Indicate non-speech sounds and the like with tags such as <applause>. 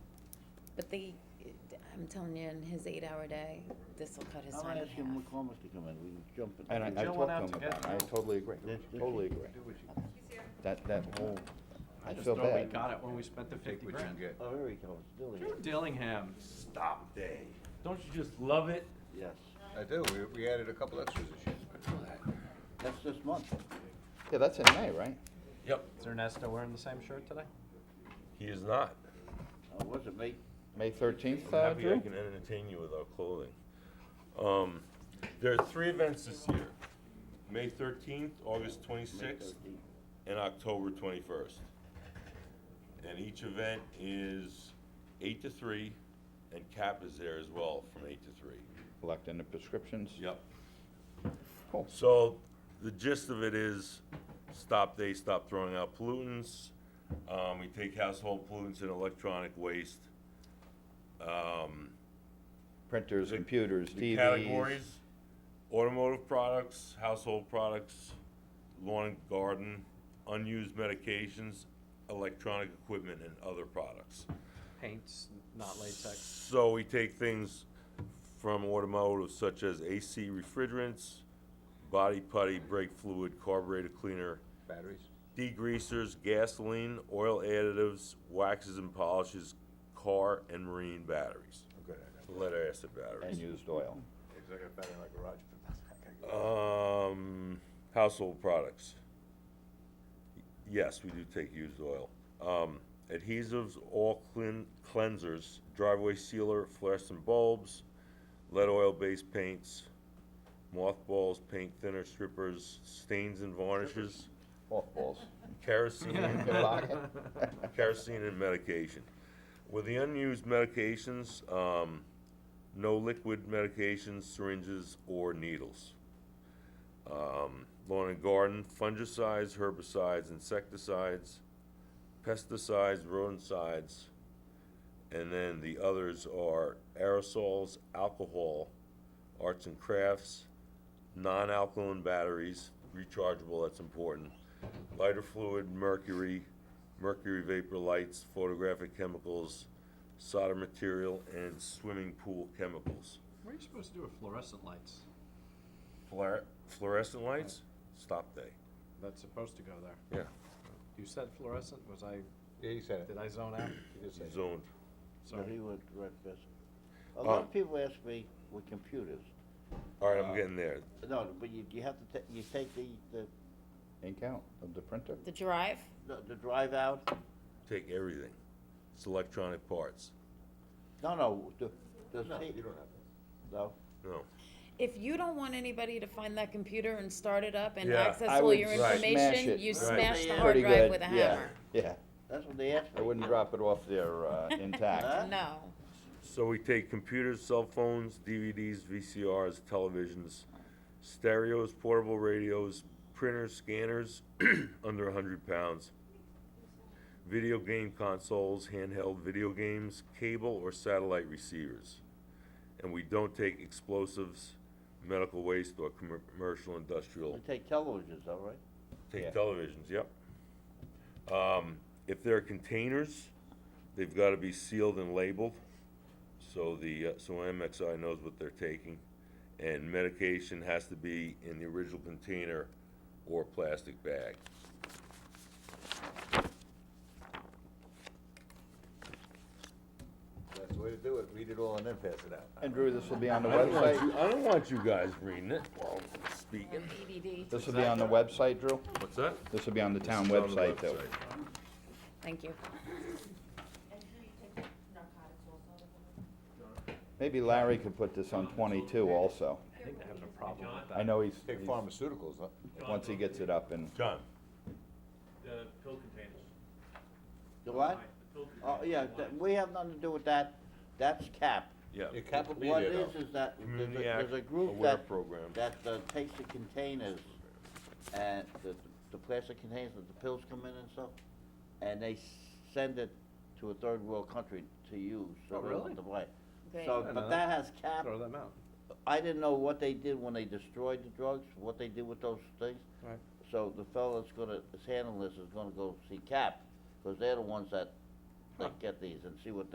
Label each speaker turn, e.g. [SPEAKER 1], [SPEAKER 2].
[SPEAKER 1] the, I'm telling you, in his eight-hour day, this will cut his
[SPEAKER 2] I'm
[SPEAKER 1] time in
[SPEAKER 2] asking
[SPEAKER 1] half.
[SPEAKER 2] McCormick to come in, we can jump in.
[SPEAKER 3] And I, I
[SPEAKER 2] Joe
[SPEAKER 3] talked
[SPEAKER 2] went
[SPEAKER 3] to
[SPEAKER 2] out
[SPEAKER 3] him
[SPEAKER 2] get
[SPEAKER 3] about it, I
[SPEAKER 2] Joe.
[SPEAKER 3] totally agree,
[SPEAKER 2] That's- that's-
[SPEAKER 3] totally agree. That, that whole, I
[SPEAKER 4] I just
[SPEAKER 3] feel
[SPEAKER 4] thought we
[SPEAKER 3] bad.
[SPEAKER 4] got it when we spent the
[SPEAKER 5] Take
[SPEAKER 4] fifty
[SPEAKER 5] what you can
[SPEAKER 4] grand.
[SPEAKER 5] get.
[SPEAKER 2] Oh, here he comes, Billy.
[SPEAKER 4] Drew Dillingham, stop day. Don't you just love it?
[SPEAKER 2] Yes,
[SPEAKER 5] I do, we, we added a couple extras this year.
[SPEAKER 2] that's this month. Uh,
[SPEAKER 3] Yeah, that's in May, right?
[SPEAKER 4] Yep. Is Ernesto wearing the same shirt today?
[SPEAKER 6] He is not.
[SPEAKER 2] Oh, was it May?
[SPEAKER 3] May thirteenth,
[SPEAKER 6] I'm
[SPEAKER 3] uh,
[SPEAKER 6] happy I
[SPEAKER 3] Drew?
[SPEAKER 6] can entertain you with our clothing. Um, there are three events this year, May thirteenth, August twenty-sixth, and October twenty-first. And each event is eight to three, and CAP is there as well from eight to three.
[SPEAKER 3] Collecting the prescriptions.
[SPEAKER 6] Yep.
[SPEAKER 3] Cool.
[SPEAKER 6] So the gist of it is, stop, they stop throwing out pollutants. Um, we take household pollutants and electronic waste. Um,
[SPEAKER 3] Printers,
[SPEAKER 6] The-
[SPEAKER 3] computers,
[SPEAKER 6] the
[SPEAKER 3] TVs.
[SPEAKER 6] categories, automotive products, household products, lawn and garden, unused medications, electronic equipment and other products.
[SPEAKER 4] Paints, not latex.
[SPEAKER 6] So we take things from automotive such as AC refrigerants, body putty, brake fluid, carburetor cleaner,
[SPEAKER 5] Batteries?
[SPEAKER 6] degreasers, gasoline, oil additives, waxes and polishes, car and marine batteries,
[SPEAKER 2] Oh,
[SPEAKER 5] I'm good at
[SPEAKER 6] lead acid
[SPEAKER 3] And
[SPEAKER 6] batteries.
[SPEAKER 3] used oil.
[SPEAKER 5] that. It's like a battery in my garage, but that's not gonna go.
[SPEAKER 6] Um, household products. Yes, we do take used oil. Um, adhesives, all clean, cleansers, driveway sealer, fluorescent bulbs, lead oil-based paints, mothballs, paint thinner, strippers, stains and varnishes,
[SPEAKER 1] <laughs>
[SPEAKER 3] Mothballs.
[SPEAKER 6] kerosene,
[SPEAKER 3] <laughs> Good luck.
[SPEAKER 6] kerosene and medication. With the unused medications, um, no liquid medications, syringes, or needles. Um, lawn and garden, fungicides, herbicides, insecticides, pesticides, rodenticides. And then the others are aerosols, alcohol, arts and crafts, non-alkaline batteries, rechargeable, that's important, lighter fluid, mercury, mercury vapor lights, photographic chemicals, solder material, and swimming pool chemicals.
[SPEAKER 4] What are you supposed to do with fluorescent lights?
[SPEAKER 6] Fluor- Fluorescent lights, stop day,
[SPEAKER 4] That's supposed to go there.
[SPEAKER 6] yeah,
[SPEAKER 4] You said fluorescent, was I,
[SPEAKER 5] Yeah, you said it.
[SPEAKER 4] did I zone out?
[SPEAKER 5] You just said it.
[SPEAKER 6] zoned.
[SPEAKER 2] So he
[SPEAKER 4] Sorry.
[SPEAKER 2] went right this. A lot
[SPEAKER 6] Uh,
[SPEAKER 2] of people ask me with computers,
[SPEAKER 6] All right, I'm getting there.
[SPEAKER 2] no, but you, you have to ta- you take the, the,
[SPEAKER 3] Ink out of the printer.
[SPEAKER 1] The drive,
[SPEAKER 2] the- the drive out,
[SPEAKER 6] Take everything. It's electronic parts.
[SPEAKER 2] no, no, the, the.
[SPEAKER 5] No,
[SPEAKER 2] tape.
[SPEAKER 5] you don't have it.
[SPEAKER 2] No,
[SPEAKER 6] No.
[SPEAKER 1] if you don't want anybody to find that computer and start it up and
[SPEAKER 6] Yeah,
[SPEAKER 1] access
[SPEAKER 3] I
[SPEAKER 1] all
[SPEAKER 3] would
[SPEAKER 1] your
[SPEAKER 6] smash
[SPEAKER 1] information,
[SPEAKER 3] it.
[SPEAKER 1] you
[SPEAKER 6] Right.
[SPEAKER 1] smash the
[SPEAKER 2] Yeah.
[SPEAKER 1] hard
[SPEAKER 3] Pretty
[SPEAKER 1] drive
[SPEAKER 3] good,
[SPEAKER 1] with a
[SPEAKER 3] yeah,
[SPEAKER 1] hammer.
[SPEAKER 3] Yeah,
[SPEAKER 2] that's what they asked
[SPEAKER 3] I
[SPEAKER 2] me.
[SPEAKER 3] wouldn't drop it off
[SPEAKER 1] <laughs>
[SPEAKER 3] there, uh, intact.
[SPEAKER 1] No,
[SPEAKER 6] So we take computers, cell phones, DVDs, VCRs, televisions, stereos, portable radios, printers, scanners, <clears throat> under hundred pounds. Video game consoles, handheld video games, cable or satellite receivers. And we don't take explosives, medical waste or commer- commercial industrial
[SPEAKER 2] We take televisions, all right?
[SPEAKER 3] Yeah.
[SPEAKER 6] Take televisions, yep. Um, if they're containers, they've gotta be sealed and labeled, so the, uh, so MXI knows what they're taking. And medication has to be in the original container or plastic bag.
[SPEAKER 5] That's the way to do it, read it all and then pass it out.
[SPEAKER 3] And Drew, this will be on the
[SPEAKER 6] I don't want
[SPEAKER 3] website.
[SPEAKER 6] you, I don't want you guys reading it while I'm
[SPEAKER 1] or
[SPEAKER 6] speaking.
[SPEAKER 1] DVD,
[SPEAKER 3] This will be on the website, Drew.
[SPEAKER 6] What's that?
[SPEAKER 3] This will be on the town
[SPEAKER 6] It's on the
[SPEAKER 3] website, though.
[SPEAKER 6] website.
[SPEAKER 1] thank you.
[SPEAKER 3] Maybe Larry could put this on twenty-two also.
[SPEAKER 4] I think they're having a problem with that.
[SPEAKER 3] I know he's,
[SPEAKER 5] Take
[SPEAKER 3] he's-
[SPEAKER 5] pharmaceuticals, huh?
[SPEAKER 3] once he gets it up and,
[SPEAKER 6] John,
[SPEAKER 7] The pill containers.
[SPEAKER 2] The what?
[SPEAKER 7] The pill
[SPEAKER 2] Oh, yeah, that, we have nothing to do with that, that's cap.
[SPEAKER 6] yeah.
[SPEAKER 5] Your cap will be
[SPEAKER 2] What
[SPEAKER 5] there,
[SPEAKER 2] it
[SPEAKER 5] though.
[SPEAKER 2] is, is that, there's a,
[SPEAKER 6] Community Act
[SPEAKER 2] there's a group
[SPEAKER 6] Aware
[SPEAKER 2] that,
[SPEAKER 6] Program.
[SPEAKER 2] that uh, takes the containers, and the, the plastic containers that the pills come in and stuff, and they send it to a third world country to use, so
[SPEAKER 4] Oh,
[SPEAKER 2] they don't
[SPEAKER 4] really?
[SPEAKER 2] have to buy. it.
[SPEAKER 1] Great.
[SPEAKER 2] So,
[SPEAKER 4] I
[SPEAKER 2] but
[SPEAKER 4] know
[SPEAKER 2] that
[SPEAKER 4] that.
[SPEAKER 2] has cap,
[SPEAKER 4] Throw them out.
[SPEAKER 2] I didn't know what they did when they destroyed the drugs, what they did with those things.
[SPEAKER 4] Right.
[SPEAKER 2] So the fellow that's gonna, that's handling this is gonna go see cap, cause they're the ones that, that get these and see what